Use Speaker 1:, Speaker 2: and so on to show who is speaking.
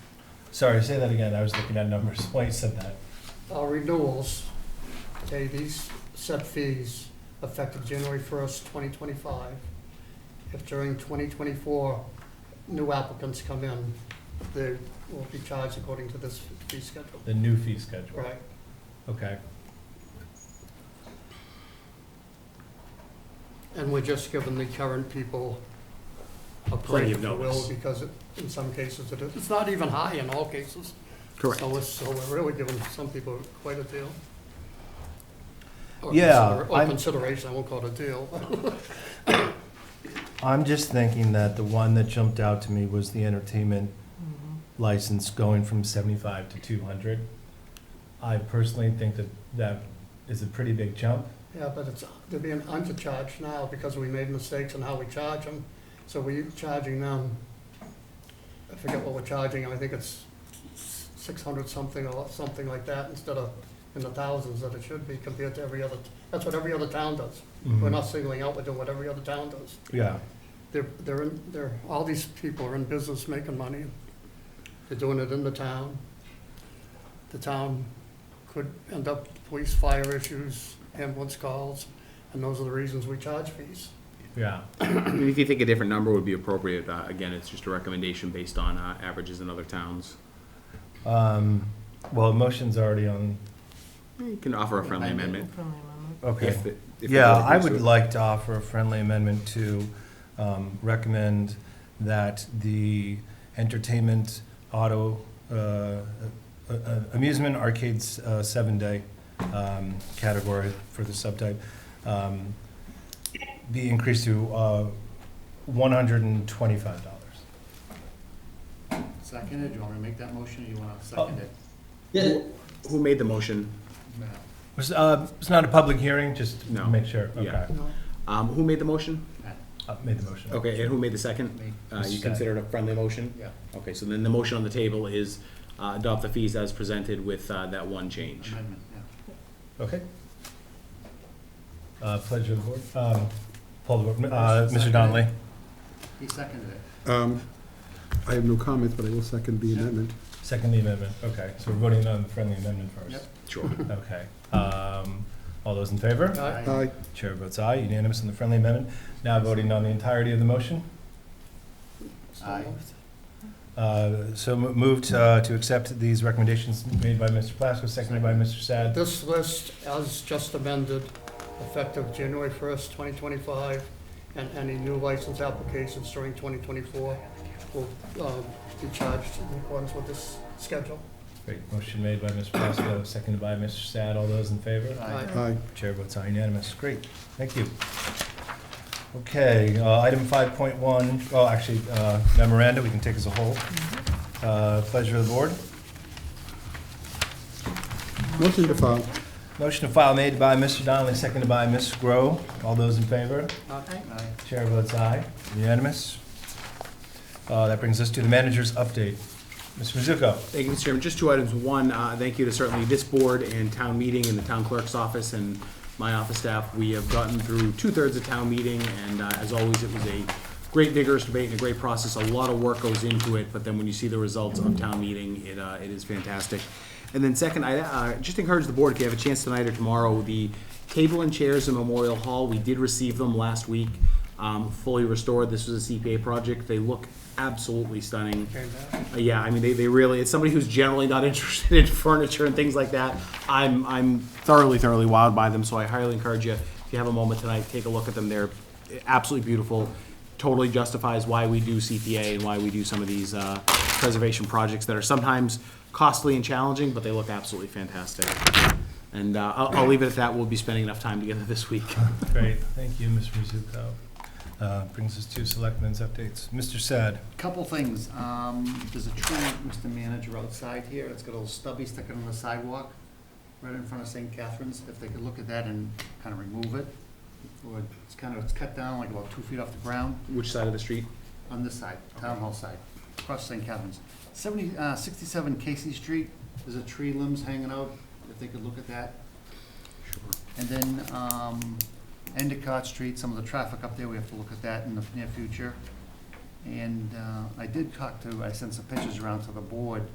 Speaker 1: Sorry, say that again. I was looking at numbers when you said that.
Speaker 2: Our renewals, okay, these set fees effective January first, twenty twenty-five. If during twenty twenty-four, new applicants come in, they will be charged according to this fee schedule.
Speaker 1: The new fee schedule.
Speaker 2: Right,
Speaker 1: Okay.
Speaker 2: and we're just giving the current people a break,
Speaker 3: Plenty
Speaker 2: if
Speaker 3: of
Speaker 2: you will,
Speaker 3: notice.
Speaker 2: because it- in some cases it is, it's not even high in all cases.
Speaker 3: Correct.
Speaker 2: So it's, so we're really giving some people quite a deal. Or
Speaker 4: Yeah,
Speaker 2: consider- Or
Speaker 4: I'm-
Speaker 2: consideration, I won't call it a deal.
Speaker 4: I'm just thinking that the one that jumped out to me was the entertainment
Speaker 2: Mm-hmm.
Speaker 4: license going from seventy-five to two hundred. I personally think that that is a pretty big jump.
Speaker 2: Yeah, but it's, they're being undercharged now because we made mistakes in how we charge them. So we're charging them, I forget what we're charging, I think it's six hundred something or something like that instead of in the thousands that it should be compared to every other, that's what every other town does. We're
Speaker 4: Hmm.
Speaker 2: not singling out, we're doing what every other town does.
Speaker 4: Yeah,
Speaker 2: They're, they're, in- they're, all these people are in business making money. They're doing it in the town. The town could end up with police, fire issues, ambulance calls, and those are the reasons we charge fees.
Speaker 1: Yeah.
Speaker 3: If you think a different number would be appropriate, uh, again, it's just a recommendation based on uh, averages in other towns.
Speaker 4: um, well, motion's already on,
Speaker 3: eh, You can offer a friendly amendment.
Speaker 4: okay.
Speaker 3: if it- if the
Speaker 4: Yeah,
Speaker 3: board
Speaker 4: I
Speaker 3: agrees
Speaker 4: would
Speaker 3: with-
Speaker 4: like to offer a friendly amendment to um, recommend that the entertainment, auto, uh, uh, uh, amusement arcades, uh, seven-day um, category for the subtype, um, be increased to uh, $125.
Speaker 5: Second it, do you want me to make that motion, or you want to second it?
Speaker 3: Who made the motion?
Speaker 5: No.
Speaker 4: It's uh, it's not a public hearing, just to
Speaker 3: No.
Speaker 4: make sure.
Speaker 3: Yeah.
Speaker 4: Okay.
Speaker 3: Um, who made the motion?
Speaker 4: Uh, Made the motion.
Speaker 3: Okay, and who made the second?
Speaker 5: Me.
Speaker 3: Uh, you considered a friendly motion?
Speaker 5: Yeah,
Speaker 3: Okay, so then the motion on the table is, uh, adopt the fees as presented with, uh, that one change.
Speaker 5: amendment, yeah.
Speaker 4: Okay. Uh, Pleasure of the board. Um, Pull the board. Uh, Mr. Donnelly?
Speaker 5: He seconded it.
Speaker 6: Um, I have no comments, but I will second the amendment.
Speaker 4: Second the amendment, okay, so we're voting on the friendly amendment first.
Speaker 5: Yep.
Speaker 3: Sure.
Speaker 4: Okay, um, all those in favor?
Speaker 2: Aye.
Speaker 6: Aye.
Speaker 4: Chair votes aye, unanimous on the friendly amendment. Now voting on the entirety of the motion.
Speaker 5: Aye.
Speaker 4: Uh, so mo- moved, uh, to accept these recommendations made by Mr. Plasko, seconded by Mr. Sad.
Speaker 2: This list, as just amended, effective January first, twenty twenty-five, and any new license applications during twenty twenty-four will, um, be charged in accordance with this schedule.
Speaker 4: Great, motion made by Mr. Plasko, seconded by Mr. Sad. All those in favor?
Speaker 5: Aye.
Speaker 6: Aye.
Speaker 4: Chair votes aye unanimous. Great, thank you. Okay, uh, item 5.1, well, actually, uh, memoranda, we can take as a whole. Uh, Pleasure of the board.
Speaker 6: Motion to file.
Speaker 4: Motion to file made by Mr. Donnelly, seconded by Ms. Grow. All those in favor?
Speaker 2: Aye.
Speaker 5: Aye.
Speaker 4: Chair votes aye, unanimous. Uh, That brings us to the manager's update. Mr. Mizuko?
Speaker 3: Thank you, Mr. Chairman. Just two items. One, uh, thank you to certainly this board and town meeting and the town clerk's office and my office staff. We have gotten through two-thirds of town meeting, and uh, as always, it was a great vigorous debate and a great process. A lot of work goes into it, but then when you see the results of town meeting, it, uh, it is fantastic. And then second, I uh, just encourage the board, if you have a chance tonight or tomorrow, the table and chairs in Memorial Hall, we did receive them last week, um, fully restored. This was a CPA project. They look absolutely stunning.
Speaker 2: Came back.
Speaker 3: Uh, Yeah, I mean, they, they really, it's somebody who's generally not interested in furniture and things like that. I'm, I'm thoroughly, thoroughly wowed by them, so I highly encourage you, if you have a moment tonight, take a look at them. They're absolutely beautiful. Totally justifies why we do CPA and why we do some of these, uh, preservation projects that are sometimes costly and challenging, but they look absolutely fantastic. And, uh, I'll, I'll leave it at that. We'll be spending enough time together this week.
Speaker 4: Great, thank you, Mr. Mizuko. Uh, Brings us to selectmen's updates. Mr. Sad?
Speaker 5: Couple things, um, there's a tree, Mr. Manager, outside here, it's got a little stubby sticking on the sidewalk, right in front of St. Catherine's, if they could look at that and kind of remove it. Or it's kind of, it's cut down like about two feet off the ground,
Speaker 3: Which side of the street?
Speaker 5: on this side, town hall side, across St. Catherine's. Seventy, uh, sixty-seven Casey Street, there's a tree limbs hanging out, if they could look at that. And then, um, Endicott Street, some of the traffic up there, we have to look at that in the near future. And, uh, I did talk to, I sent some pictures around to the board,